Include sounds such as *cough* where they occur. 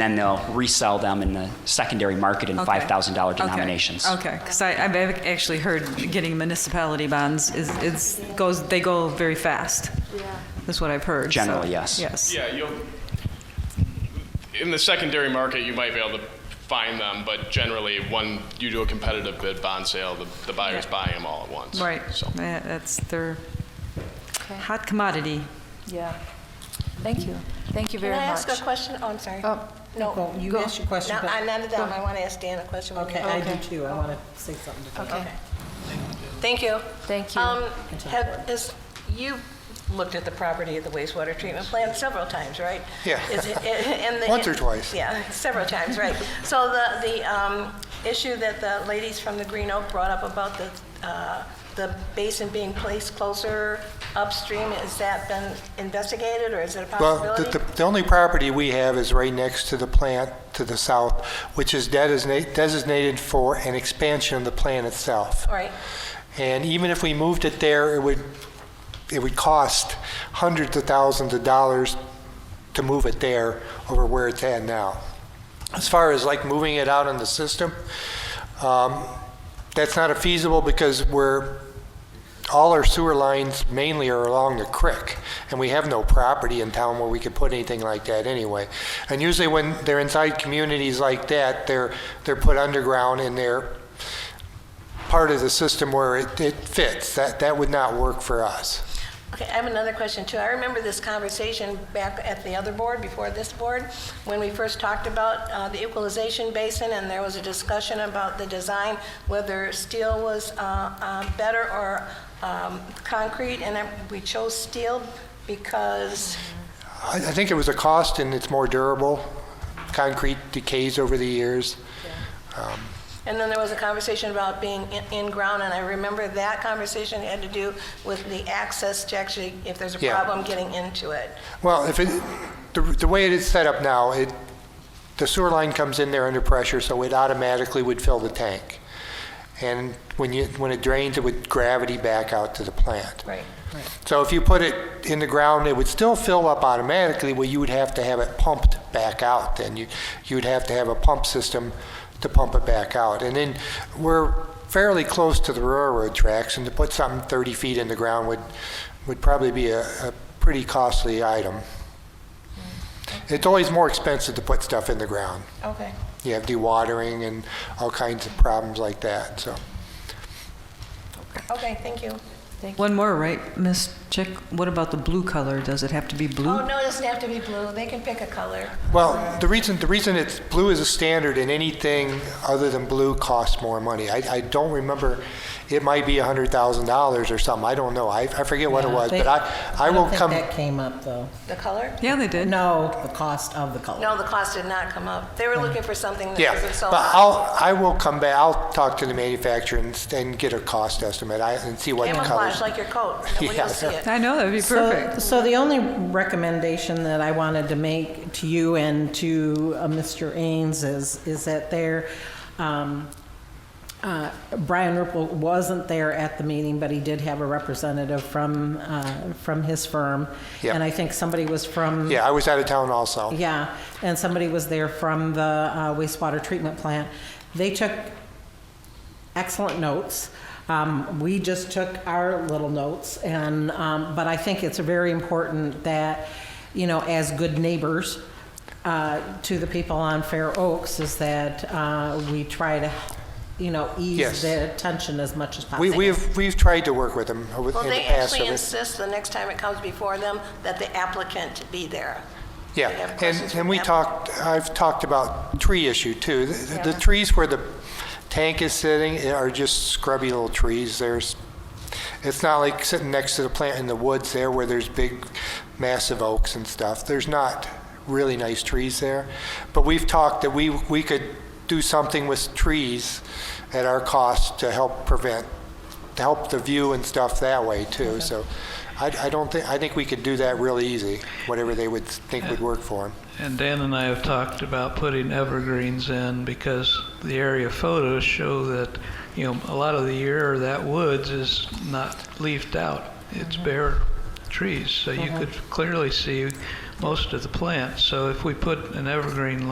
then they'll resell them in the secondary market in Okay. $5,000 Okay. denominations. Okay, because I've actually heard getting municipality bonds is, it's, goes, they go very fast. Yeah. That's what I've heard. so- Generally, yes. Yes. Yeah, you'll, in the secondary market, you might be able to find them, but generally, when you do a competitive bid bond sale, the, the buyer's Yeah. buying them all at once. Right, So. Yeah, that's their hot commodity. Yeah. Thank you. Thank you very Can I ask much. a question? Oh, I'm sorry. Oh, No. Nicole, you go. ask your question, No, but- I- none of go. them. I want to ask Dan a question. when Okay, you- I do too. I want to say something to them. Okay. Thank you. Thank you. Um, talk have, is, you've looked at the property of the wastewater treatment plant several times, right? Yeah. Is it- and the- Once or twice. Yeah, several times, right. So the, the, um, issue that the ladies from the Green Oak brought up about the, uh, the basin being placed closer upstream, has that been investigated or is it a Well, the- possibility? the, the only property we have is right next to the plant to the south, which is designate- designated for an expansion of the plant itself. All right. And even if we moved it there, it would, it would cost hundreds of thousands of dollars to move it there over where it's at now. As far as like moving it out in the system, um, that's not feasible because we're, all our sewer lines mainly are along the creek, and we have no property in town where we could put anything like that anyway. And usually when they're inside communities like that, they're, they're put underground and they're part of the system where it, it fits. That, that would not work for us. Okay, I have another question too. I remember this conversation back at the other board, before this board, when we first talked about uh, the equalization basin, and there was a discussion about the design, whether steel was uh, uh, better or um, concrete, and I- we chose steel because, I, I think it was a cost and it's more durable. Concrete decays over the years. and then there was a conversation about being in- in-ground, and I remember that conversation had to do with the access to actually, if there's a Yeah. problem, getting into it. Well, if it, the, the way it is set up now, it, the sewer line comes in there under pressure, so it automatically would fill the tank. And when you, when it drains, it would gravity back out to the plant. Right. So if you put it in the ground, it would still fill up automatically, well, you would have to have it pumped back out then. You, you would have to have a pump system to pump it back out. And then we're fairly close to the railroad tracks, and to put something 30 feet in the ground would, would probably be a, a pretty costly item. It's always more expensive to put stuff in the ground. Okay. You have dewatering and all kinds of problems like that, so. Okay, thank you. One more, right, Ms. Chick? What about the blue color? Does it have to be Oh, blue? no, it doesn't have to be blue. They can pick a color. Well, the reason, the reason it's, blue is a standard and anything other than blue costs more money. I, I don't remember, it might be $100,000 or something, I don't know, I, I forget what it Yeah, was, they- but I, I will I don't come, think that came up, though. The color? Yeah, they did. No, the cost of the color. No, the cost did not come up. They were looking for something that yeah. wasn't so But I'll, I will come back, I'll talk to the manufacturer and, and get a cost estimate, I, and see what the camouflage colors. like your coat. Nobody will see *laughs* Yeah. it. I know, that'd be So- perfect. So the only recommendation that I wanted to make to you and to uh, Mr. Ains is, is that there, um, uh, Brian Ripple wasn't there at the meeting, but he did have a representative from, uh, from his firm. Yeah. And I think somebody was from. Yeah, I was out of town also. Yeah, and somebody was there from the uh, wastewater treatment plant. They took excellent notes. Um, We just took our little notes, and, um, but I think it's very important that, you know, as good neighbors uh, to the people on Fair Oaks, is that uh, we try to, you know, ease Yes. the tension as much as possible. We, we've, we've tried to work with them over- in Well, the they past. actually over- insist the next time it comes before them that the applicant be there. Yeah, They have questions and, from and we them. talked, I've talked about tree issue too. The- The the trees where the tank is sitting are just scrubby little trees. There's, it's not like sitting next to the plant in the woods there where there's big massive oaks and stuff. There's not really nice trees there. But we've talked that we, we could do something with trees at our cost to help prevent, to help the view and stuff that way too. So I, I don't think, I think we could do that really easy, whatever they would think would work for them. And Dan and I have talked about putting evergreens in because the area photos show that, you know, a lot of the year that woods is not leafed out. It's bare trees, so you could clearly see most of the plants. So if we put an evergreen